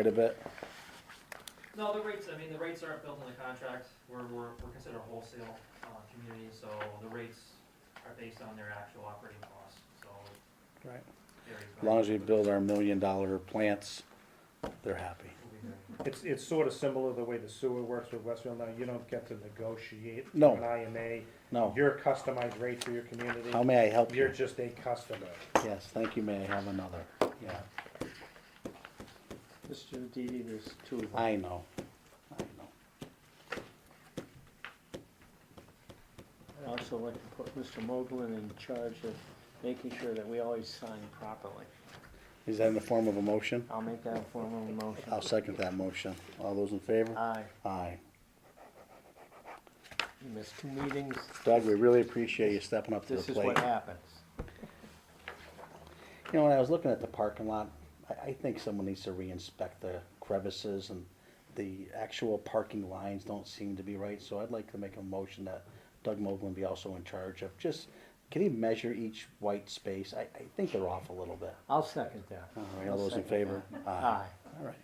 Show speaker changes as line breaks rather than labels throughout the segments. quite a bit.
No, the rates, I mean, the rates aren't built in the contract, we're, we're, we're considered a wholesale, uh, community, so the rates are based on their actual operating costs, so.
Right.
varies by-
As long as we build our million dollar plants, they're happy.
We'll be there.
It's, it's sort of similar to the way the sewer works with Westfield now, you don't get to negotiate
No.
an IMA.
No,
Your customized rate for your community,
how may I help
you're
you?
just a customer.
Yes, thank you, may I have another? Yeah,
Mr. Didi, there's two of them.
I know, I know.
I'd also like to put Mr. Moglen in charge of making sure that we always sign properly.
Is that in the form of a motion?
I'll make that a formal motion.
I'll second that motion. All those in favor?
Aye.
Aye.
You missed two meetings.
Doug, we really appreciate you stepping up to the
This is
plate.
what happens.
You know, when I was looking at the parking lot, I, I think someone needs to re-inspect the crevices and the actual parking lines don't seem to be right, so I'd like to make a motion that Doug Moglen be also in charge of just, can he measure each white space? I, I think they're off a little bit.
I'll second that.
All right, all
I'll
those in
second
favor?
that.
Aye. All right.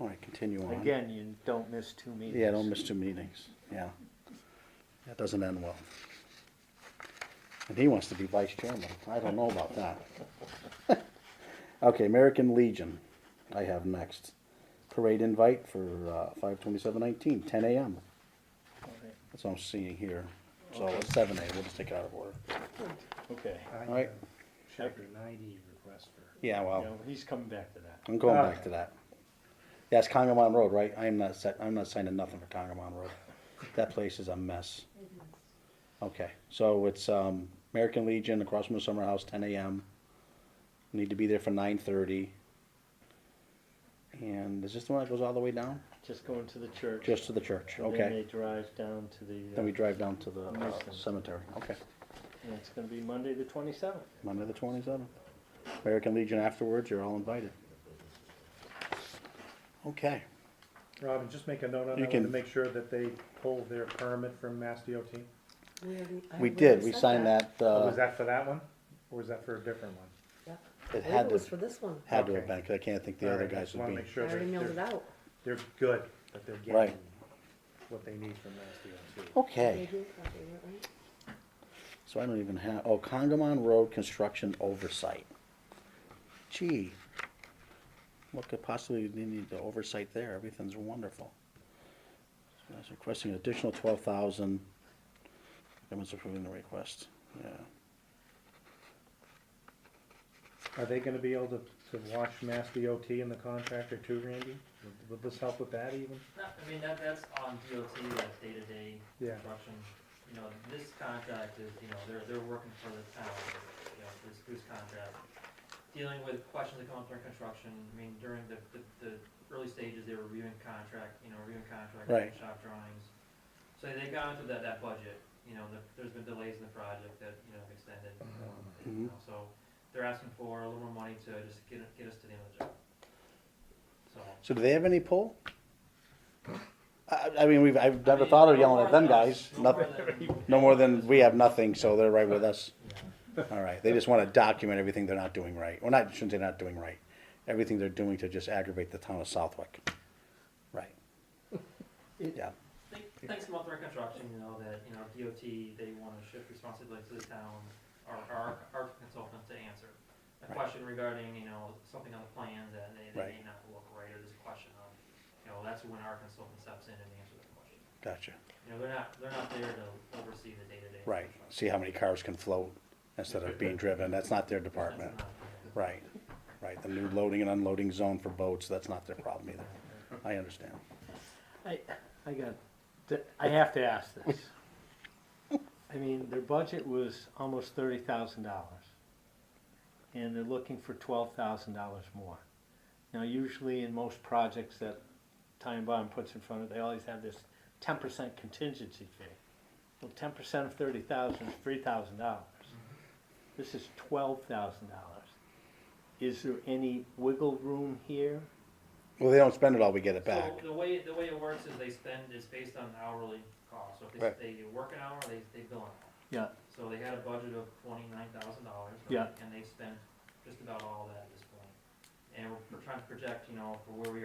All right, continue
Aye.
on.
Again, you don't miss two meetings.
Yeah, don't miss two meetings, yeah. That doesn't end well. And he wants to be vice chairman, I don't know about that. Okay, American Legion, I have next. Parade invite for, uh, five twenty-seven nineteen, ten AM,
Okay.
that's what I'm seeing here. So it's seven AM, we'll just take it out of order,
Okay.
I
Right.
have Chapter ninety request for,
yeah,
You
well,
know, he's coming back to that.
I'm going back to that. Yeah, it's Congamon Road, right, I'm not set, I'm not signing nothing for Congamon Road, that place is a mess. Okay, so it's um, American Legion across from the summer house, ten AM. Need to be there for nine thirty. And is this the one that goes all the way down?
Just going to the church.
Just to the church,
And Then they
okay.
drive down to the,
Then
uh,
we drive down to the uh,
Nice.
cemetery, okay.
and it's gonna be Monday the twenty-seventh.
Monday the twenty-seventh. American Legion afterwards, you're all invited. Okay,
Robin, just make a note on
You
that one to
can-
make sure that they pull their permit from Mass DOT.
We already- I
we
already
did, we
said
signed that,
Oh,
uh,
Was that for that one, or was that for a different one?
Yeah. I
it
believe
had
it was for
to,
this one. I
had to have
Okay.
been, 'cause I can't think the
All
other
right, I
guys
just
would
wanna
be.
make sure
already
that
mailed it
they're,
out.
they're good, that they're
Right.
getting what they need from Mass DOT.
Okay.
Maybe, probably, right?
So I don't even have, oh, Congamon Road Construction Oversight. Gee, what could possibly need the oversight there? Everything's wonderful. So That's requesting an additional twelve thousand. Government's approving the request, yeah.
Are they gonna be able to, to watch Mass DOT and the contractor too, Randy? Would- Would this help with that even?
No, I mean, that, that's on DOT, that's day-to-day
Yeah.
construction, you know, this contract is, you know, they're, they're working for the town, you know, this, this contract. Dealing with questions that come up during construction, I mean, during the, the, the early stages, they were reviewing contract, you know, reviewing contract,
Right.
shop drawings. So they got into that, that budget, you know, the- there's been delays in the project that, you know, have extended, um, you
Mhm.
know, so they're asking for a little more money to just get, get us to the end of the job. So.
So do they have any pull? I, I mean, we've, I've
I
never
mean,
thought of
no
yelling
more
at them
than
guys,
us, no more
nothing,
than-
no more than we have nothing, so they're right with us.
Yeah.
All right, they just wanna document everything they're not doing right, well, not, shouldn't say not doing right, everything they're doing to just aggravate the town of Southwick. Right. Yeah,
Think- Thanks to Month Rec Construction, you know, that, you know, DOT, they wanna shift responsibility to the town, our, our, our consultants to answer. A
Right.
question regarding, you know, something on the plan that they, that may
Right.
not look right, or there's a question on, you know, that's when our consultant steps in and answers the question.
gotcha,
You know, they're not, they're not there to oversee the day-to-day.
right, see how many cars can float instead of being driven, that's not their department. Right, right, the new loading and unloading zone for boats, that's not their problem either, I understand.
I, I got, th- I have to ask this. I mean, their budget was almost thirty thousand dollars. And they're looking for twelve thousand dollars more. Now, usually in most projects that Time Bond puts in front of, they always have this ten percent contingency fee. Well, ten percent of thirty thousand is three thousand dollars. This is twelve thousand dollars. Is there any wiggle room here?
Well, they don't spend it all, we get it back,
So the way, the way it works is they spend, is based on hourly cost, so if
Right.
they, they work an hour, they, they bill an hour.
Yeah,
So they had a budget of twenty-nine thousand dollars.
Yeah.
And they spent just about all that at this point. And we're- we're trying to project, you know, for where we are.